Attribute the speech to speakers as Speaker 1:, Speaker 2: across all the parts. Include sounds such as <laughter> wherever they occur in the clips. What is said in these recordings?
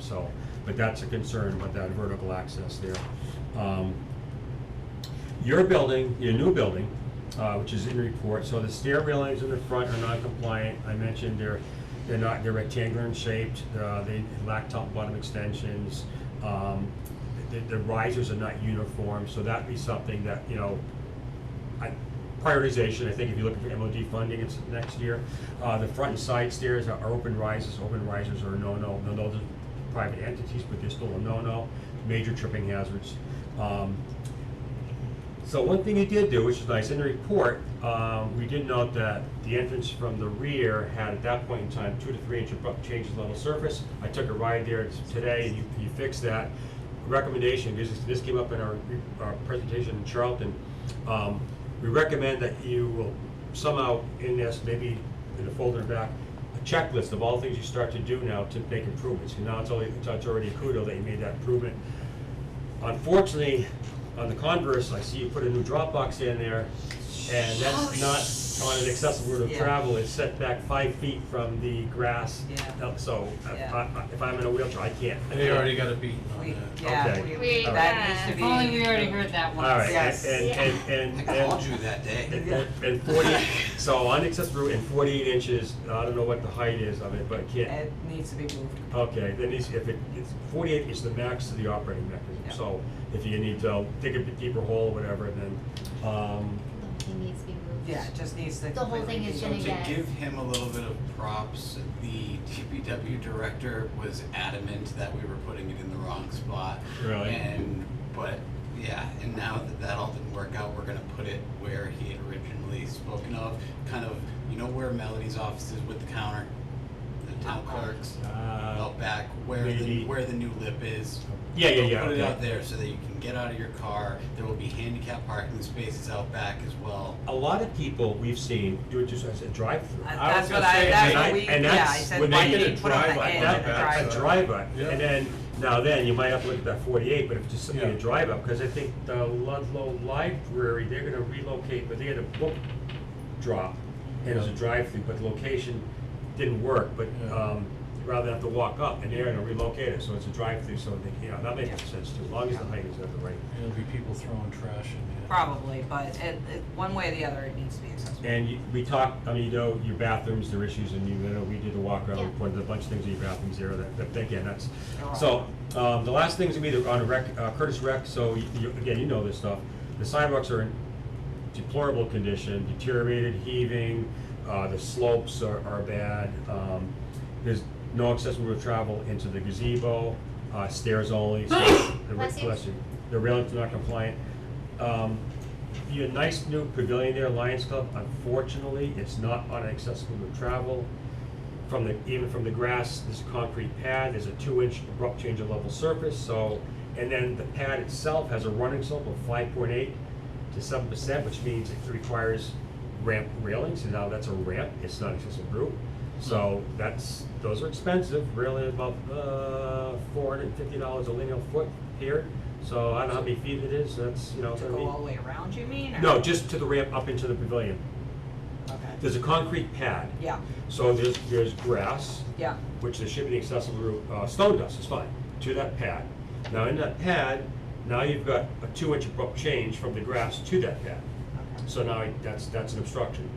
Speaker 1: so, but that's a concern with that vertical access there. Um, Your building, your new building, uh, which is in report, so the stair railings in the front are non-compliant. I mentioned they're, they're not, they're rectangular in shaped, uh, they lack top and bottom extensions. Um, The, the risers are not uniform, so that'd be something that, you know, I- prioritization, I think if you're looking for MOD funding, it's next year. Uh, the front and side stairs are are open rises, open rises are a no-no, no, those are private entities, but they're still a no-no, major tripping hazards. Um, So one thing you did do, which is nice, in the report, um, we did note that the entrance from the rear had at that point in time, two to three inch abrupt changes in level surface. I took a ride there today, and you, you fixed that. Recommendation, because this- this came up in our, re- our presentation in Charlton, um, we recommend that you will somehow, in this, maybe in the folder back, a checklist of all the things you start to do now to make improvements. And now it's only, it's already a kudo that you made that improvement. Unfortunately, on the converse, I see you put a new drop box in there, and that's not on an accessible route of
Speaker 2: Yeah.
Speaker 1: travel, it's set back five feet from the grass.
Speaker 2: Yeah.
Speaker 1: Uh, So, I-
Speaker 2: Yeah.
Speaker 1: I- I- if I'm in a wheelchair, I can't.
Speaker 3: They already got a beat on
Speaker 2: We,
Speaker 3: that.
Speaker 2: yeah,
Speaker 1: Okay.
Speaker 2: we,
Speaker 4: We,
Speaker 2: that
Speaker 4: uh,
Speaker 2: needs to
Speaker 5: If
Speaker 2: be.
Speaker 5: only we already heard that
Speaker 1: All
Speaker 5: once.
Speaker 1: right,
Speaker 2: Yes.
Speaker 1: and, and, and, and.
Speaker 6: I called you that day.
Speaker 1: And- And and forty, so on access route and forty-eight inches, I don't know what the height is of it, but it can't,
Speaker 2: It needs to be moved.
Speaker 1: okay, then it's, if it, it's, forty-eight is the max of the operating mechanism,
Speaker 2: Yeah.
Speaker 1: so if you need to dig a bit deeper hole, whatever, then, um,
Speaker 4: He needs to be moved.
Speaker 2: Yeah, it just needs to.
Speaker 4: The whole thing
Speaker 2: completely be-
Speaker 4: is
Speaker 6: So
Speaker 4: gonna
Speaker 6: to
Speaker 4: get-
Speaker 6: give him a little bit of props, the DPW director was adamant that we were putting it in the wrong spot.
Speaker 1: Really?
Speaker 6: And, but, yeah, and now that that all didn't work out, we're gonna put it where he had originally spoken of, kind of, you know where Melody's office is with the counter? The town clerks,
Speaker 1: uh,
Speaker 6: out back, where
Speaker 1: maybe.
Speaker 6: the, where the new lip is.
Speaker 1: yeah, yeah, yeah,
Speaker 6: Put it out
Speaker 1: okay.
Speaker 6: there so that you can get out of your car, there will be handicap parking spaces out back as well.
Speaker 1: A lot of people we've seen do it just as a drive-through.
Speaker 2: I-
Speaker 3: I
Speaker 2: Uh, That's
Speaker 3: was
Speaker 2: what
Speaker 3: gonna
Speaker 2: I,
Speaker 3: say,
Speaker 2: that's
Speaker 3: and
Speaker 2: what
Speaker 1: I-
Speaker 2: we,
Speaker 1: and
Speaker 2: yeah, I
Speaker 1: that's
Speaker 2: said,
Speaker 1: when
Speaker 2: why
Speaker 1: they
Speaker 2: did
Speaker 1: did
Speaker 2: you
Speaker 3: a
Speaker 2: put on the
Speaker 3: drive-by
Speaker 2: edge of
Speaker 3: on
Speaker 1: That,
Speaker 3: the
Speaker 2: the
Speaker 3: back
Speaker 1: that's a
Speaker 3: side.
Speaker 2: drive?
Speaker 1: drive-up,
Speaker 3: Yeah.
Speaker 1: and then, now then, you might have to look at that forty-eight, but if it's just simply a
Speaker 3: Yeah.
Speaker 1: drive-up, because I think the Ludlow Library, they're gonna relocate, but they had a book drop, and it was a drive-through, but the location didn't work, but,
Speaker 3: Yeah.
Speaker 1: um, rather than have to walk up, and they're gonna relocate it, so it's a drive-through, so they, you know, that makes sense too, as long as the height is at the right.
Speaker 3: It'll be people throwing trash in there.
Speaker 2: Probably, but it, it, one way or the other, it needs to be accessible.
Speaker 1: And you, we talked, I mean, you know, your bathrooms, there are issues, and you, you know, we did the walk around, we
Speaker 4: Yeah.
Speaker 1: pointed a bunch of things in your bathrooms there that, that, again, that's.
Speaker 2: They're all-
Speaker 1: So, um, the last things would be the- on rec, uh, Curtis Rec, so you, you- again, you know this stuff. The sidewalks are in deplorable condition, deteriorated, heaving, uh, the slopes are, are bad. Um, there's no accessible route of travel into the gazebo, uh, stairs only,
Speaker 4: <gasps>
Speaker 1: so. the ra-
Speaker 4: Bless you.
Speaker 1: Bless you. The railings are not compliant. Um, your nice new pavilion there, Lions Club, unfortunately, it's not on accessible route of travel. From the, even from the grass, there's a concrete pad, there's a two-inch abrupt change of level surface, so, and then the pad itself has a running slope of five point eight to seven percent, which means it requires ramp railings, and now that's a ramp, it's not accessible route. So that's, those are expensive, really about, uh, four hundred and fifty dollars a linear foot here, so I don't know how many feet it is, that's, you know,
Speaker 2: To
Speaker 1: gonna be-
Speaker 2: go all the way around, you mean, or?
Speaker 1: no, just to the ramp up into the pavilion.
Speaker 2: Okay,
Speaker 1: There's a concrete pad.
Speaker 2: yeah,
Speaker 1: So there's, there's grass,
Speaker 2: yeah,
Speaker 1: which there should be an accessible route, uh, stone dust is fine, to that pad. Now in that pad, now you've got a two inch abrupt change from the grass to that pad.
Speaker 2: okay,
Speaker 1: So now I- that's, that's an obstruction.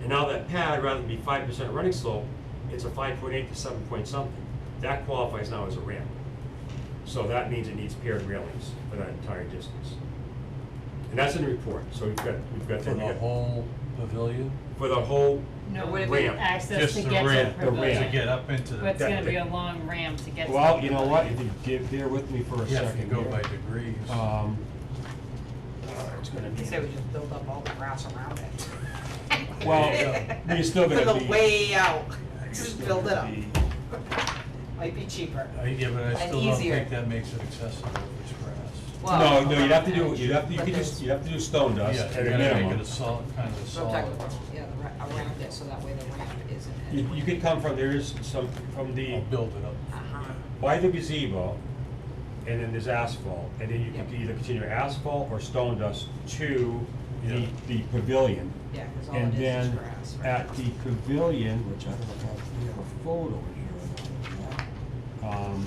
Speaker 1: And now that pad, rather than be five percent running slope, it's a five point eight to seven point something. That qualifies now as a ramp. So that means it needs paired railings for that entire distance. And that's in the report, so we've got, we've got
Speaker 3: For
Speaker 1: that,
Speaker 3: the whole pavilion?
Speaker 1: for the whole
Speaker 5: No,
Speaker 2: It
Speaker 5: would
Speaker 2: would've
Speaker 5: it
Speaker 1: been
Speaker 5: be
Speaker 1: Ramp.
Speaker 5: access
Speaker 3: Just
Speaker 5: to
Speaker 3: the
Speaker 5: get to
Speaker 3: ramp,
Speaker 5: the pavilion?
Speaker 3: To get up into
Speaker 5: But
Speaker 3: the,
Speaker 5: it's gonna be a long ramp to get to the
Speaker 1: Well, you know what,
Speaker 5: pavilion.
Speaker 1: if you give, bear with me for a
Speaker 3: yeah, if you
Speaker 1: second
Speaker 3: go by
Speaker 1: here.
Speaker 3: degrees.
Speaker 1: Um, it's gonna
Speaker 2: you
Speaker 1: be,
Speaker 2: say we just build up all the grass around it. <laughs>
Speaker 1: <laughs> well, but you're still
Speaker 2: For
Speaker 1: gonna
Speaker 2: the
Speaker 1: be.
Speaker 2: way out, just
Speaker 1: you're
Speaker 2: build it
Speaker 1: gonna
Speaker 2: up,
Speaker 1: be-
Speaker 2: might be cheaper.
Speaker 3: I- Yeah, but I
Speaker 2: And
Speaker 3: still don't
Speaker 2: easier.
Speaker 3: think that makes it accessible if it's grass.
Speaker 1: No, no, you'd have to do, you'd have to, you could just, you'd have to do stone dust
Speaker 3: Yeah,
Speaker 1: at
Speaker 3: you
Speaker 1: a
Speaker 3: gotta make it
Speaker 1: minimum.
Speaker 3: a solid, kind of a
Speaker 2: So I'm talking
Speaker 3: solid.
Speaker 2: about, yeah, the ra- around it, so that way the ramp isn't. as-
Speaker 1: You, you could come from, there is some, from
Speaker 3: I'll
Speaker 1: the,
Speaker 3: build it up.
Speaker 2: Uh-huh.
Speaker 1: by the gazebo, and then there's asphalt, and then you could
Speaker 2: Yep.
Speaker 1: either continue asphalt or stone dust to the,
Speaker 3: Yeah.
Speaker 1: the pavilion.
Speaker 2: Yeah, because all
Speaker 1: And
Speaker 2: it is is
Speaker 1: then
Speaker 2: grass. right
Speaker 1: at
Speaker 2: now.
Speaker 1: the pavilion, which I don't know if we have a photo in here or not. Um,